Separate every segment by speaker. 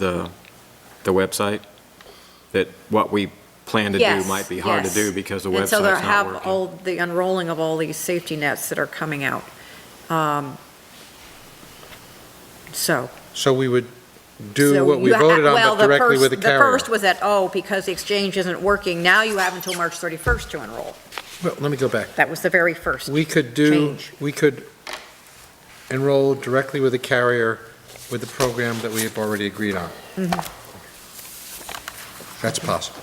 Speaker 1: the, the website? That what we plan to do
Speaker 2: Yes,
Speaker 1: might be hard to
Speaker 2: yes.
Speaker 1: do because the
Speaker 2: And so there
Speaker 1: website's not
Speaker 2: have
Speaker 1: working?
Speaker 2: all, the unrolling of all these safety nets that are coming out. Um, So.
Speaker 3: So we would
Speaker 2: so
Speaker 3: do what we
Speaker 2: you ha-
Speaker 3: voted on,
Speaker 2: well,
Speaker 3: but
Speaker 2: the
Speaker 3: directly
Speaker 2: first-
Speaker 3: with the
Speaker 2: The
Speaker 3: carrier.
Speaker 2: first was that, oh, because the exchange isn't working, now you have until March 31st to enroll.
Speaker 3: Well, let me go back.
Speaker 2: That was the very first.
Speaker 3: We could do,
Speaker 2: Change.
Speaker 3: we could enroll directly with the carrier with the program that we have already agreed on.
Speaker 2: Mm-hmm.
Speaker 3: That's possible.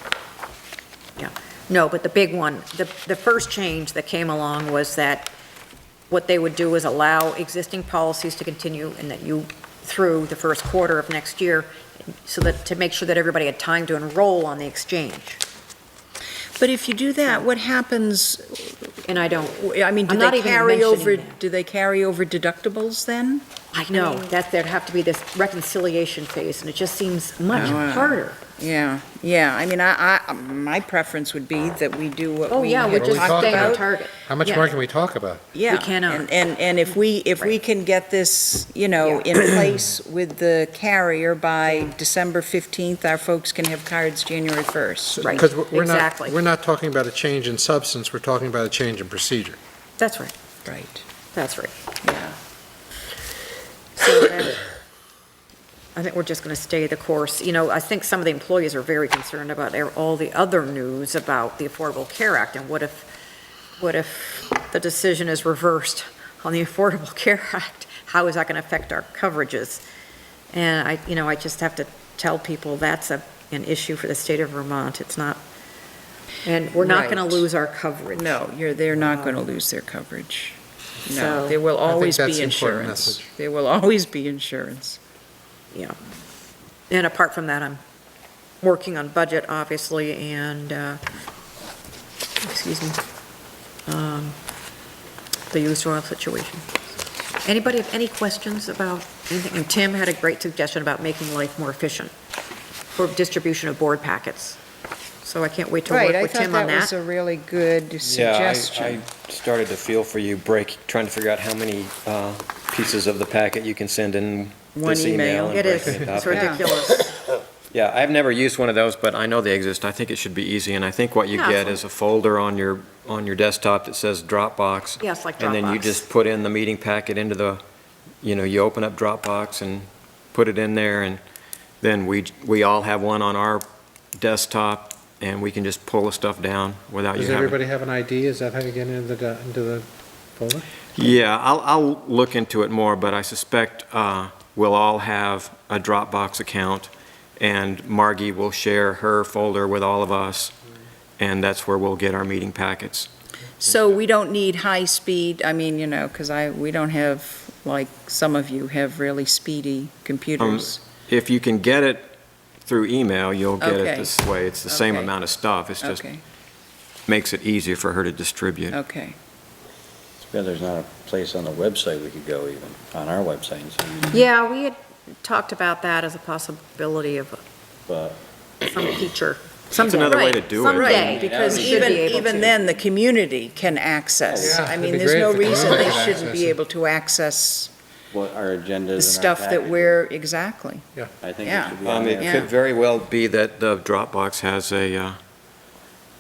Speaker 2: No, but the big one, the, the first change that came along was that what they would do is allow existing policies to continue and that you, through the first quarter of next year, so that, to make sure that everybody had time to enroll on the exchange.
Speaker 4: But if you do that, what happens,
Speaker 2: And I don't,
Speaker 4: I mean, do
Speaker 2: I'm not
Speaker 4: they
Speaker 2: even
Speaker 4: carry
Speaker 2: mentioning
Speaker 4: over,
Speaker 2: that.
Speaker 4: do they carry over deductibles then?
Speaker 2: I know, that there'd have to be this reconciliation phase, and it just seems much
Speaker 4: Oh, wow.
Speaker 2: harder.
Speaker 4: Yeah, yeah, I mean, I, I, my preference would be that we do what
Speaker 2: Oh,
Speaker 4: we
Speaker 2: yeah, we're
Speaker 3: What
Speaker 4: had
Speaker 3: are we
Speaker 2: just
Speaker 4: talked
Speaker 3: talking
Speaker 2: staying on
Speaker 4: about.
Speaker 2: target.
Speaker 3: How much
Speaker 2: Yeah.
Speaker 3: more can we talk about?
Speaker 4: Yeah.
Speaker 2: cannot.
Speaker 4: And, and, and if we, if we
Speaker 2: Right.
Speaker 4: can get this, you know, in place with the carrier by December 15th, our folks can have cards January 1st.
Speaker 2: Right,
Speaker 3: Because we're- we're not,
Speaker 2: exactly.
Speaker 3: we're not talking about a change in substance, we're talking about a change in procedure.
Speaker 2: That's right,
Speaker 4: Right,
Speaker 2: that's right.
Speaker 4: yeah.
Speaker 2: So then, I think we're just going to stay the course. You know, I think some of the employees are very concerned about their- all the other news about the Affordable Care Act, and what if, what if the decision is reversed on the Affordable Care Act? How is that going to affect our coverages? And I, you know, I just have to tell people that's a, an issue for the state of Vermont. It's not, and we're not going
Speaker 4: Right.
Speaker 2: to lose our coverage.
Speaker 4: No, you're, they're not going to lose their coverage.
Speaker 2: So-
Speaker 4: No, there will always
Speaker 3: that's
Speaker 4: be
Speaker 3: an important
Speaker 4: insurance.
Speaker 3: message.
Speaker 4: There will always be insurance.
Speaker 2: And apart from that, I'm working on budget, obviously, and, uh, excuse me, um, the used oil situation. Anybody have any questions about anything? And Tim had a great suggestion about making life more efficient for distribution of board packets. So I can't wait to work
Speaker 4: Right, I
Speaker 2: with
Speaker 4: thought
Speaker 2: Tim on
Speaker 4: that
Speaker 2: that.
Speaker 4: was a really good
Speaker 5: Yeah,
Speaker 4: suggestion.
Speaker 5: I- I started to feel for you, break, trying to figure out how many uh, pieces of the packet you can send in
Speaker 4: One
Speaker 5: this email.
Speaker 4: email.
Speaker 5: and
Speaker 2: It is,
Speaker 5: breaking it
Speaker 2: it's
Speaker 5: up.
Speaker 4: Yeah.
Speaker 2: ridiculous.
Speaker 5: Yeah, I've never used one of those, but I know they exist. I think it should be easy, and I think what you
Speaker 2: Yeah.
Speaker 5: get is a folder on your, on your desktop that says Dropbox.
Speaker 2: Yes, like
Speaker 5: And then you
Speaker 2: Dropbox.
Speaker 5: just put in the meeting packet into the, you know, you open up Dropbox and put it in there, and then we, we all have one on our desktop, and we can just pull the stuff down without you
Speaker 3: Does
Speaker 5: having.
Speaker 3: everybody have an ID? Is that how you get into the, into the folder?
Speaker 5: Yeah, I'll, I'll look into it more, but I suspect uh, we'll all have a Dropbox account, and Margie will share her folder with all of us, and that's where we'll get our meeting packets.
Speaker 4: So we don't need high-speed, I mean, you know, because I, we don't have, like, some of you have really speedy computers.
Speaker 5: If you can get it through email, you'll get
Speaker 4: Okay.
Speaker 5: it this way. It's the same
Speaker 4: Okay.
Speaker 5: amount of stuff, it's just,
Speaker 4: Okay,
Speaker 5: makes it easier for her to distribute.
Speaker 4: okay.
Speaker 6: Yeah, there's not a place on the website we could go even, on our website, and see,
Speaker 2: Yeah, we had talked about that as a possibility of
Speaker 6: but
Speaker 2: some feature.
Speaker 5: That's another way to do it.
Speaker 2: Someday,
Speaker 4: Right,
Speaker 2: someday, because
Speaker 4: because
Speaker 2: we should
Speaker 4: even,
Speaker 2: be able
Speaker 4: even
Speaker 2: to.
Speaker 4: then, the community can access.
Speaker 3: Yeah,
Speaker 4: I
Speaker 3: it'd
Speaker 4: mean,
Speaker 3: be
Speaker 4: there's
Speaker 3: great
Speaker 4: no
Speaker 3: if the
Speaker 4: reason
Speaker 3: community
Speaker 4: they
Speaker 3: could
Speaker 4: shouldn't be
Speaker 3: access it.
Speaker 4: able to access
Speaker 6: what our agenda
Speaker 4: the
Speaker 6: is in our
Speaker 4: stuff that
Speaker 6: package.
Speaker 4: we're, exactly.
Speaker 6: I think
Speaker 4: yeah.
Speaker 6: it should be on
Speaker 5: Um,
Speaker 6: there.
Speaker 5: It could very well be that the Dropbox has a, uh,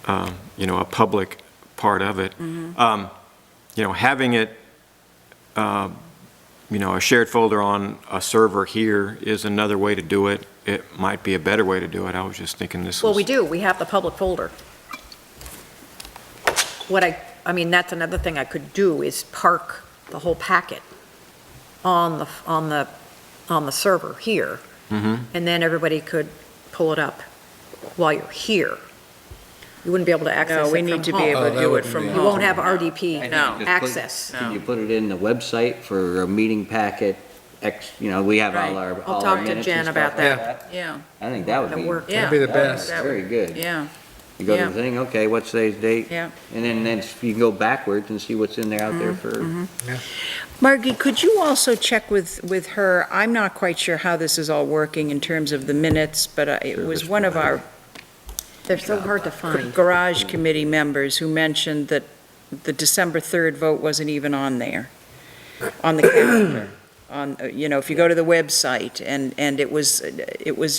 Speaker 5: um, you know, a public part of it.
Speaker 2: Mm-hmm.
Speaker 5: Um, You know, having it, uh, you know, a shared folder on a server here is another way to do it. It might be a better way to do it. I was just thinking this was.
Speaker 2: Well, we do, we have the public folder. What I, I mean, that's another thing I could do is park the whole packet on the, on the, on the server here,
Speaker 5: Mhm.
Speaker 2: and then everybody could pull it up while you're here. You wouldn't be able to access
Speaker 4: No,
Speaker 2: it
Speaker 4: we
Speaker 2: from
Speaker 4: need to be
Speaker 2: home.
Speaker 4: able
Speaker 3: Oh,
Speaker 4: to
Speaker 3: that
Speaker 4: do it
Speaker 3: wouldn't
Speaker 4: from
Speaker 3: be-
Speaker 4: home.
Speaker 2: You won't have
Speaker 4: I
Speaker 2: RDP
Speaker 4: think No.
Speaker 6: Just put-
Speaker 2: access.
Speaker 4: No.
Speaker 6: Can you put it in the website for a meeting packet, X, you know, we have all
Speaker 4: Right.
Speaker 6: our,
Speaker 2: I'll
Speaker 6: all our
Speaker 2: talk to
Speaker 6: minutes
Speaker 2: Jen
Speaker 6: and stuff
Speaker 2: about
Speaker 6: like
Speaker 3: that.
Speaker 6: that.
Speaker 4: Yeah,
Speaker 6: I think that would
Speaker 2: That
Speaker 6: be.
Speaker 2: work.
Speaker 4: yeah.
Speaker 3: That'd be the
Speaker 6: that would-
Speaker 3: best.
Speaker 4: That
Speaker 6: Very
Speaker 4: would-
Speaker 6: good.
Speaker 4: Yeah,
Speaker 6: You go to
Speaker 4: yeah.
Speaker 6: the thing, okay, what's today's date?
Speaker 4: yeah. Mm-hmm.
Speaker 6: And then, then you can go backwards and see what's in there out there for,
Speaker 4: Margie, could you also check with, with her? I'm not quite sure how this is all working in terms of the minutes, but uh, it was one of our
Speaker 2: They're so hard to find.
Speaker 4: garage committee members who mentioned that the December 3rd vote wasn't even on there, on the calendar. on, uh, you know, if you go to the website, and, and it was, it was